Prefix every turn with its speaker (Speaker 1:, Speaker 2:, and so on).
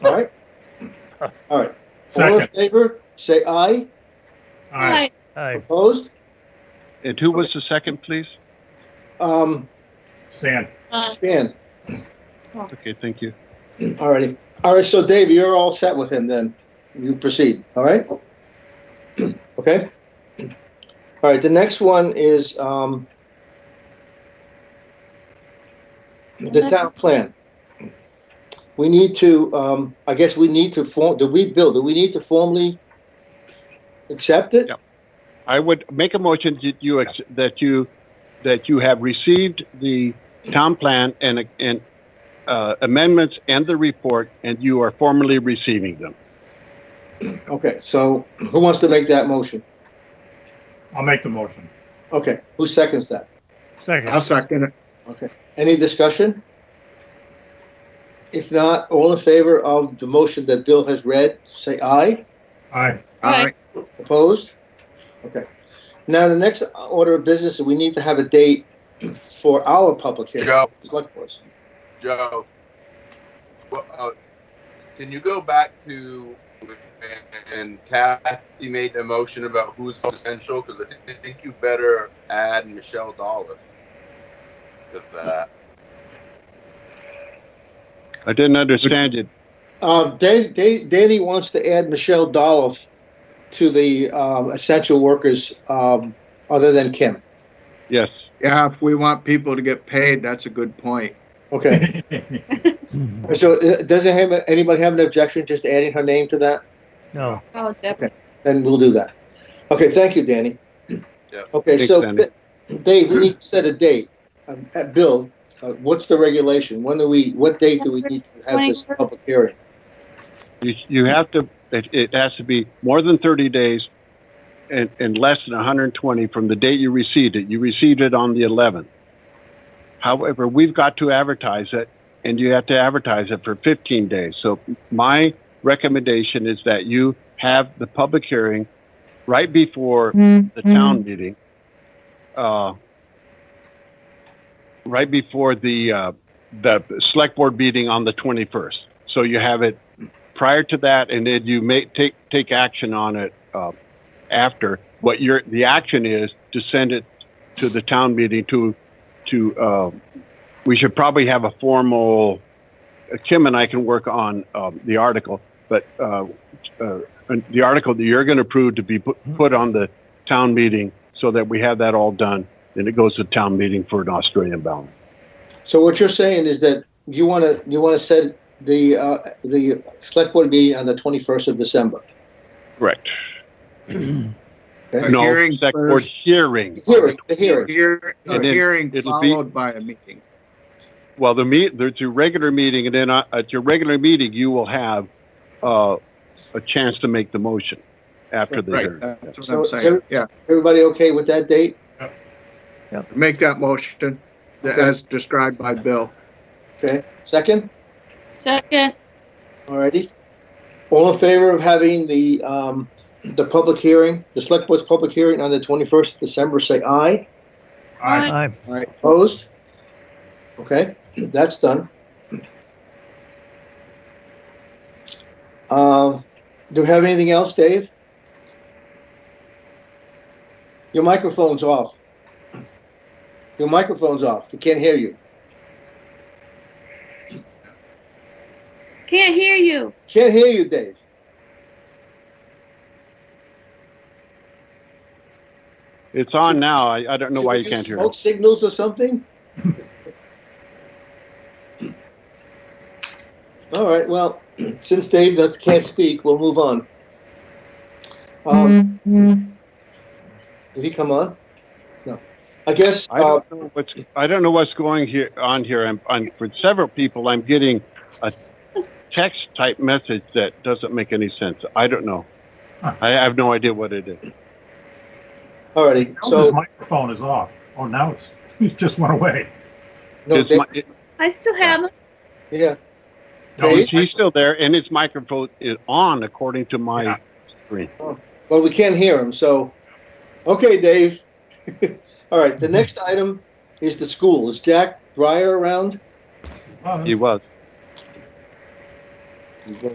Speaker 1: All right. All in
Speaker 2: Second.
Speaker 1: favor, say aye.
Speaker 2: Aye.
Speaker 3: Aye.
Speaker 1: Opposed?
Speaker 4: And Uh, who was the second, please?
Speaker 1: Um,
Speaker 2: Stan.
Speaker 5: Aye.
Speaker 1: Stan,
Speaker 4: Okay, thank you.
Speaker 1: all righty. All right, so Dave, you're all set with him then. You proceed, all right? Okay? All right, the next one is, um, the town plan. We need to, um, I guess we need to form, do we, Bill, do we need to formally accept it?
Speaker 4: Yep. I would make a motion that you, ex- that you, that you have received the town plan and, and uh, amendments and the report, and you are formally receiving them.
Speaker 1: Okay, so who wants to make that motion?
Speaker 2: I'll make the motion.
Speaker 1: Okay, who seconds that?
Speaker 3: Second.
Speaker 6: second it.
Speaker 1: Any discussion? If not, all in favor of the motion that Bill has read, say aye.
Speaker 2: Aye.
Speaker 5: Aye.
Speaker 1: Opposed? Okay. Now, the next order of business, we need to have a date for our public hearing.
Speaker 7: Joe,
Speaker 1: Select boards.
Speaker 7: Joe. Well, uh, can you go back to when Kathy made the motion about who's essential? Because I thi- think you better add Michelle Dolliff to that.
Speaker 4: I didn't understand it.
Speaker 1: Uh, Dan- Dan- Danny wants to add Michelle Dolph to the um, essential workers, um, other than Kim.
Speaker 4: Yes.
Speaker 6: Yeah, if we want people to get paid, that's a good point.
Speaker 1: Okay. So uh, doesn't have- anybody have an objection just adding her name to that?
Speaker 3: No.
Speaker 5: Oh, Deb.
Speaker 1: then we'll do that. Okay, thank you, Danny.
Speaker 7: Yeah.
Speaker 1: Okay,
Speaker 4: Thanks,
Speaker 1: so,
Speaker 4: Danny.
Speaker 1: Bi- Dave, we need to set a date. Um, uh, Bill, uh, what's the regulation? When do we, what date do we need to have this public hearing?
Speaker 4: You, you have to, it, it has to be more than 30 days and, and less than 120 from the date you received it. You received it on the 11th. However, we've got to advertise it and you have to advertise it for 15 days. So my recommendation is that you have the public hearing right before the town meeting, uh, right before the, uh, the select board meeting on the 21st. So you have it prior to that, and then you may take, take action on it, uh, after. What your, the action is to send it to the town meeting to, to, uh, we should probably have a formal, uh, Kim and I can work on, um, the article, but, uh, uh, and the article that you're gonna approve to be put, put on the town meeting so that we have that all done, and it goes to town meeting for an Australian ballot.
Speaker 1: So what you're saying is that you want to, you want to set the, uh, the select board meeting on the 21st of December.
Speaker 4: Correct.
Speaker 1: Okay.
Speaker 6: A
Speaker 4: No,
Speaker 6: hearing
Speaker 4: select board
Speaker 6: first.
Speaker 4: hearing.
Speaker 1: Hearing, the
Speaker 6: Hear-
Speaker 1: hearing.
Speaker 6: A
Speaker 4: And then
Speaker 6: hearing
Speaker 4: it'll be-
Speaker 6: followed by a meeting.
Speaker 4: Well, the meet, there's your regular meeting, and then uh, at your regular meeting, you will have, uh, a chance to make the motion after the
Speaker 6: Right,
Speaker 4: hearing.
Speaker 6: that's what
Speaker 1: So-
Speaker 6: I'm
Speaker 1: so-
Speaker 6: saying, yeah.
Speaker 1: Everybody okay with that date?
Speaker 6: Make that motion th-
Speaker 1: Okay.
Speaker 6: as described by Bill.
Speaker 1: Okay, second?
Speaker 5: Second.
Speaker 1: Alrighty. All in favor of having the, um, the public hearing, the select board's public hearing on the 21st of December, say aye.
Speaker 2: Aye.
Speaker 3: Aye.
Speaker 1: Opposed? Okay, that's done. Um, do we have anything else, Dave? Your microphone's off. Your microphone's off. We can't hear you.
Speaker 5: Can't hear you.
Speaker 1: Can't hear you, Dave.
Speaker 4: It's on now. I, I don't know why you can't hear
Speaker 1: Smoke
Speaker 4: it.
Speaker 1: signals or something? All right, well, since Dave does- can't speak, we'll move on. Um, Did he come on? No. I guess,
Speaker 4: I
Speaker 1: uh,
Speaker 4: don't know what's, I don't know what's going here, on here. I'm, I'm, for several people, I'm getting a text type message that doesn't make any sense. I don't know.
Speaker 2: Huh.
Speaker 4: I have no idea what it is.
Speaker 1: uh, all righty,
Speaker 2: His
Speaker 1: so,
Speaker 2: microphone is off. Oh, now it's, it just went away.
Speaker 1: no,
Speaker 4: Is
Speaker 1: Dave,
Speaker 4: my- it-
Speaker 5: I still have it.
Speaker 1: yeah.
Speaker 2: No,
Speaker 1: Dave?
Speaker 4: is he still there? And his microphone is on according to
Speaker 2: Yeah.
Speaker 4: my screen.
Speaker 1: Well, we can't hear him, so, okay, Dave. All right, the next item is the school. Is Jack Breyer around?
Speaker 2: Oh,
Speaker 4: He was.